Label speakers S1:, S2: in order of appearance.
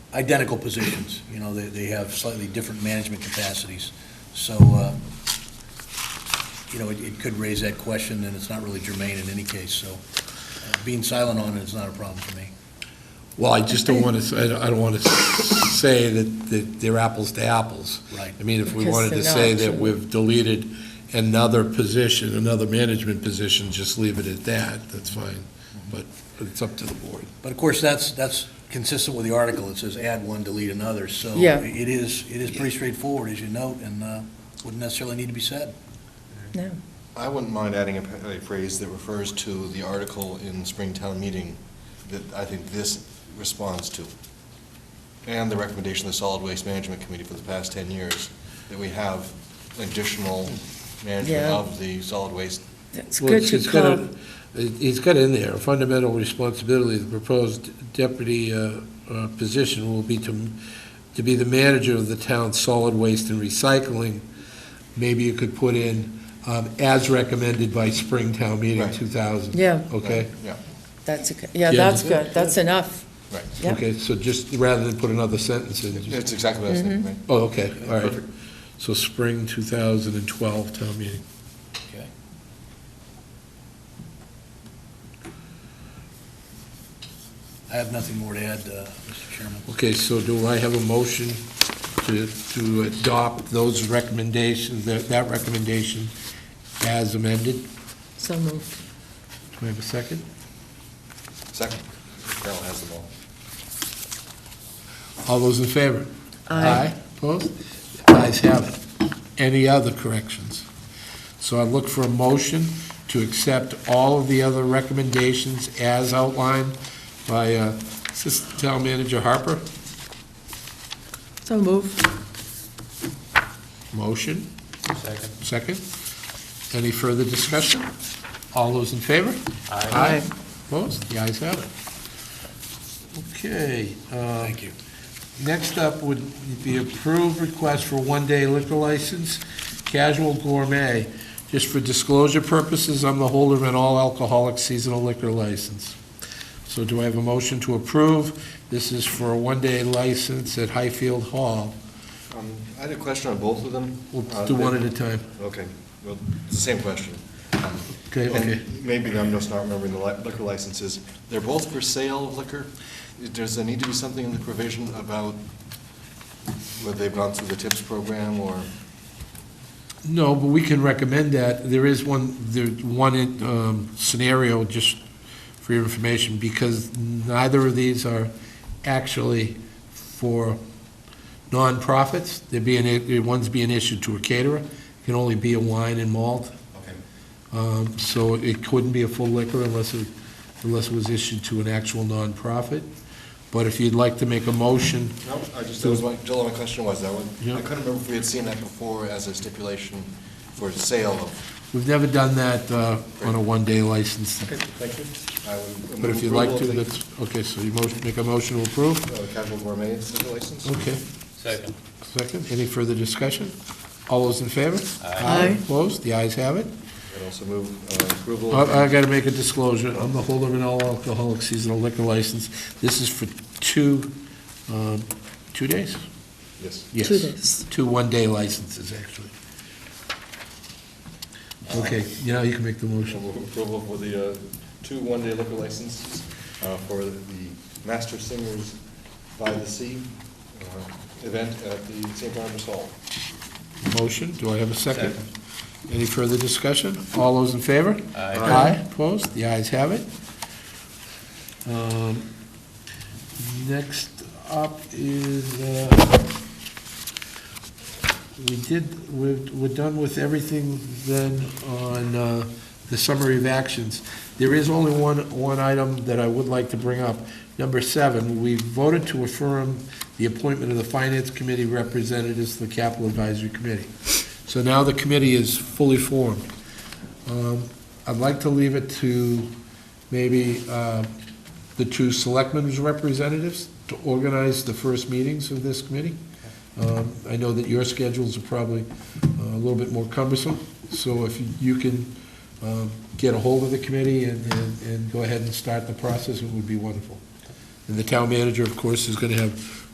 S1: identical positions. You know, they, they have slightly different management capacities. So, uh, you know, it, it could raise that question, and it's not really germane in any case, so uh, being silent on it is not a problem for me.
S2: Well, I just don't want to, I don't want to say that, that they're apples to apples.
S1: Right.
S2: I mean, if we
S3: Because
S2: wanted to
S3: they're
S2: say
S3: not,
S2: that
S3: sure.
S2: we've deleted another position, another management position, just leave it at that, that's fine. But it's up to the board.
S1: But of course, that's, that's consistent with the article. It says add one, delete another, so
S3: Yeah.
S1: it is, it is pretty straightforward, as you note, and uh, wouldn't necessarily need to be said.
S3: No.
S4: I wouldn't mind adding a p- a phrase that refers to the article in Springtown meeting that I think this responds to, and the recommendation of the Solid Waste Management Committee for the past 10 years, that we have additional management
S3: Yeah.
S4: of the solid waste.
S3: That's
S2: Well,
S3: good
S2: she's
S3: to
S2: got
S3: call.
S2: it- He's got in there, a fundamental responsibility, the proposed deputy uh, uh, position will be to, to be the manager of the town's solid waste and recycling. Maybe you could put in, um, as recommended by Springtown Meeting
S4: Right.
S2: 2000.
S3: Yeah.
S2: Okay?
S4: Yeah,
S3: That's, okay. yeah,
S2: Yeah.
S3: that's good. That's enough.
S4: right.
S3: Yeah.
S2: Okay, so just, rather than put another sentence in, just-
S4: That's exactly what I was thinking, right?
S2: oh, okay, all right. So spring 2012 town meeting.
S1: Okay. I have nothing more to add, uh, Mr. Chairman.
S2: Okay, so do I have a motion to, to adopt those recommendations, that, that recommendation as amended?
S3: So moved.
S2: Do I have a second?
S4: Second, Carol has the ball.
S2: All those in favor?
S3: Aye.
S2: Opposed? Ayes have it. Any other corrections? So I look for a motion to accept all of the other recommendations as outlined by uh, Assistant Town Manager Harper.
S3: So moved.
S2: Motion? Second. Second. Any further discussion? All those in favor? Aye. Opposed? The ayes have it. Okay. Thank you. Next up would be approved request for one-day liquor license, casual gourmet. Just for disclosure purposes, I'm the holder of an all-alcoholic seasonal liquor license. So do I have a motion to approve? This is for a one-day license at Highfield Hall.
S4: Um, I had a question on both of them.
S2: We'll
S4: Uh,
S2: do
S4: they-
S2: one at a time.
S4: Okay, well, it's the same question. Um,
S2: Okay,
S4: and
S2: okay.
S4: Maybe I'm just not remembering the li- liquor licenses. They're both for sale of liquor. Does there need to be something in the provision about whether they've gone through the TIPS program or,
S2: No, but we can recommend that. There is one, there's one um, scenario, just for your information, because neither of these are actually for nonprofits. They're being, one's being issued to a caterer, It can only be a wine and malt.
S4: okay,
S2: Um, So it couldn't be a full liquor unless it, unless it was issued to an actual nonprofit. But if you'd like to make a motion,
S4: no, I just, that was my, Jill, my question was that one.
S2: Yeah.
S4: I couldn't remember if we had seen that before as a stipulation for sale of.
S2: we've never done that uh, on a one-day license.
S4: Okay, thank you. I would
S2: But if you'd
S4: move
S2: like to,
S4: approval of
S2: that's, okay, so you motion, make a motion to approve?
S4: the, uh, Casual gourmet liquor license?
S2: Okay,
S5: Second.
S2: second, any further discussion? All those in favor?
S3: Aye.
S2: Opposed, the ayes have it.
S4: I'd also move uh, approval. of-
S2: I, I gotta make a disclosure, I'm the holder of an all alcoholic seasonal liquor license. This is for two, um, two days?
S4: Yes.
S2: Yes.
S3: Two days.
S2: Two one-day licenses, actually. Okay, you know, you can make the
S4: Motion
S2: motion.
S4: for Approval for the uh, two one-day liquor licenses uh, for the Master Singers by the Sea uh, event at the St. Barnabas Hall.
S2: Motion, do I have a second? Any further discussion? All those in favor?
S5: Aye.
S2: Aye, opposed, the ayes have it. Um, Next up is, uh, we did, we're, we're done with everything then on uh, the summary of actions. There is only one, one item that I would like to bring up. Number seven, we voted to affirm the appointment of the Finance Committee representatives to the Capital Advisory Committee. So now the committee is fully formed. Um, I'd like to leave it to maybe uh, the two selectmen's representatives to organize the first meetings of this committee. Um, I know that your schedules are probably uh, a little bit more cumbersome, so if you can um, get a hold of the committee and, and- and go ahead and start the process, it would be wonderful. And the town manager, of course, is going to have